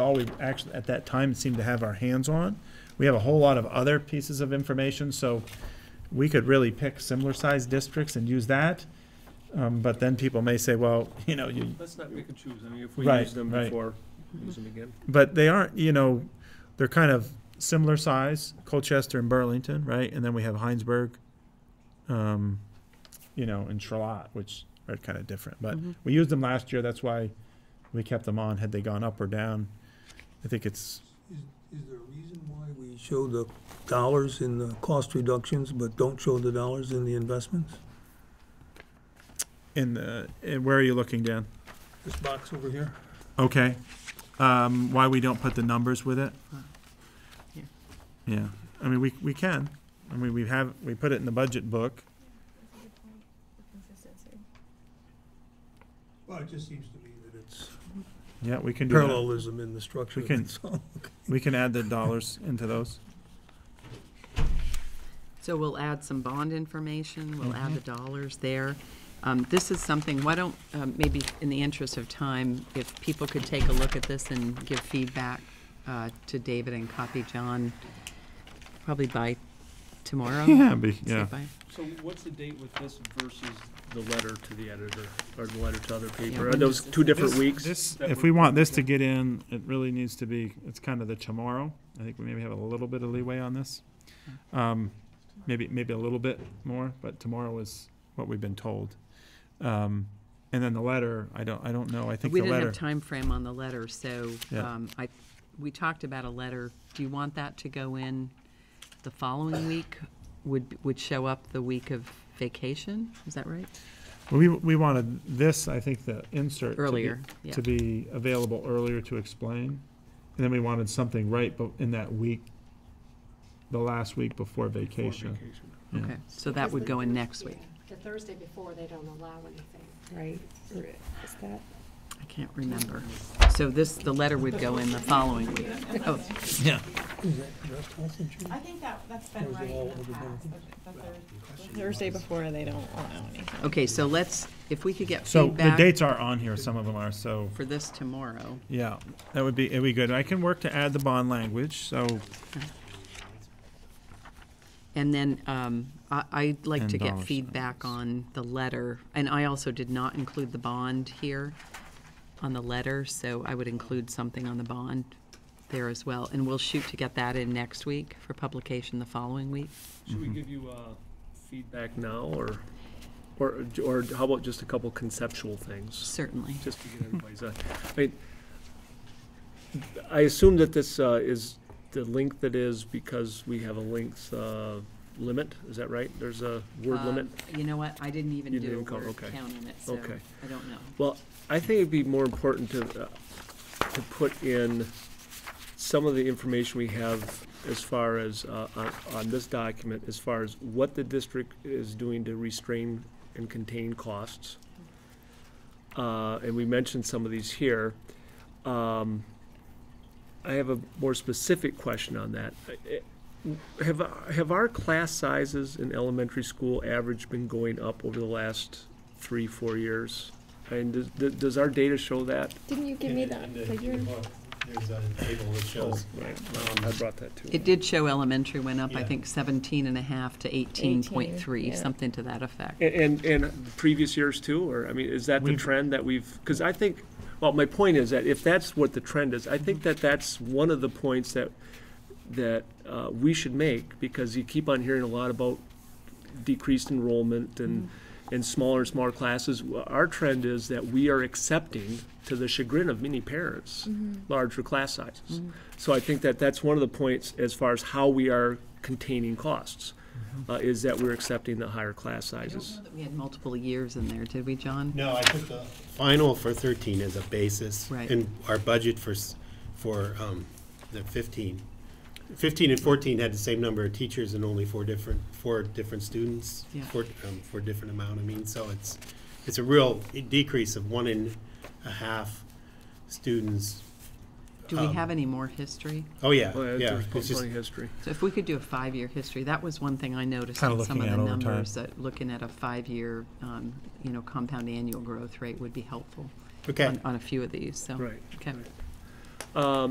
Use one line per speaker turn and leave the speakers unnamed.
all we actually, at that time, seemed to have our hands on. We have a whole lot of other pieces of information, so we could really pick similar-sized districts and use that. Um, But then people may say, well, you know, you,
Let's not pick and choose. I mean, if we
Right,
use them
right.
before,
Mhm.
use them again.
but they aren't, you know, they're kind of similar size, Colchester and Burlington, right? And then we have Heinsberg, um, you know, and Charlotte, which are kind of different. But we used them last year. That's why we kept them on. Had they gone up or down, I think it's
Is is there a reason why we show the dollars in the cost reductions, but don't show the dollars in the investments?
in the. In, where are you looking, Dan?
This box over here?
Okay. Um, why we don't put the numbers with it?
Here.
Yeah, I mean, we, we can. I mean, we have, we put it in the budget book.
Well, it just seems to me that it's
Yeah, we can do that.
parallelism in the structure.
We can-
that's all.
We can add the dollars into those.
So we'll add some bond information, we'll
Mm-hmm.
add the dollars there. Um, This is something, why don't, um, maybe in the interest of time, if people could take a look at this and give feedback uh, to David and copy John, probably by tomorrow.
Yeah, be,
Say
yeah.
by-
So what's the date with this versus the letter to the editor, or the letter to other paper? Are
when
those
does this-
two different weeks?
This,
That
if
would-
we want this to get in, it really needs to be, it's kind of the tomorrow. I think we maybe have a little bit of leeway on this. Um, maybe, maybe a little bit more, but tomorrow is what we've been told. Um, and then the letter, I don't, I don't know. I think
We
the
didn't have
letter,
time frame on the letter, so
Yeah.
um, I, we talked about a letter. Do you want that to go in the following week? Would, would show up the week of vacation? Is that right?
we, we wanted this, I think, the insert. to be-
Earlier, yeah.
To be available earlier to explain. And then we wanted something right, but in that week, the last week before
Before
vacation. Yeah.
Okay, so that would go in next week.
The Thursday before, they don't allow anything, right? Or Is that?
I can't remember. So this, the letter would go in the following week. Oh,
Is that just health insurance?
I think that, that's been
Those are
right
all
in the
other
past,
benefits.
that- that there's-
Thursday before, they don't allow anything.
okay, so let's, if we could get
So the
feedback
dates are on here, some of them are, so,
for this tomorrow.
yeah, that would be, it'd be good. I can work to add the bond language, so,
And then um, I- I'd like
Ten
to get
dollars.
feedback on the letter. And I also did not include the bond here on the letter, so I would include something on the bond there as well. And we'll shoot to get that in next week for publication the following week.
Should we
Mm-hmm.
give you, uh, feedback now, or, or, or how about just a couple conceptual things?
Certainly.
just to get everybody's, uh, I mean, I assume that this uh, is the length that is because we have a length uh, limit, is that right? There's a word
Um,
limit?
You know what? I didn't even
You
do
didn't
a
call-
word
okay.
count on it, so
Okay.
I don't know.
Well, I think it'd be more important to, uh, to put in some of the information we have as far as, uh, on, on this document, as far as what the district is doing to restrain and contain costs. Uh, and we mentioned some of these here. Um, I have a more specific question on that. I- I- Have, have our class sizes in elementary school average been going up over the last three, four years? And does- does, does our data show that?
Didn't you give me that figure?
There's a table that shows
Right, um, I brought that too.
It did show elementary went up, I
Yeah.
think 17 and a half to 18.3,
yeah.
something to that effect.
And, and- and previous years too, or, I mean, is that the
We've-
trend that we've, because I think, well, my point is that if that's what the trend is, I think that that's one of the points that, that uh, we should make, because you keep on hearing a lot about decreased enrollment and, and smaller and smaller classes. Our trend is that we are accepting, to the chagrin of many parents, larger class sizes. So I think that that's one of the points as far as how we are containing costs, uh, is that we're accepting the higher class
I don't
sizes.
know that we had multiple years in there, did we, John?
No, I took the final for thirteen as a basis.
Right.
And our budget for, s- for um, the fifteen. Fifteen and fourteen had the same number of teachers and only four different, four different students.
Yeah.
Four, um, four different amount, I mean, so it's, it's a real decrease of one and a half students.
Do we
Um,
have any more history?
Oh, yeah,
Well,
yeah.
There's
it's just-
plenty of history.
So if we could do a five-year history, that was one thing I noticed
Kinda
in some of
looking
the
at over time.
numbers, that looking at a five-year, um, you know, compound annual growth rate would be helpful
Okay.
on- on a few of these, so.
Right,
Okay.
Um,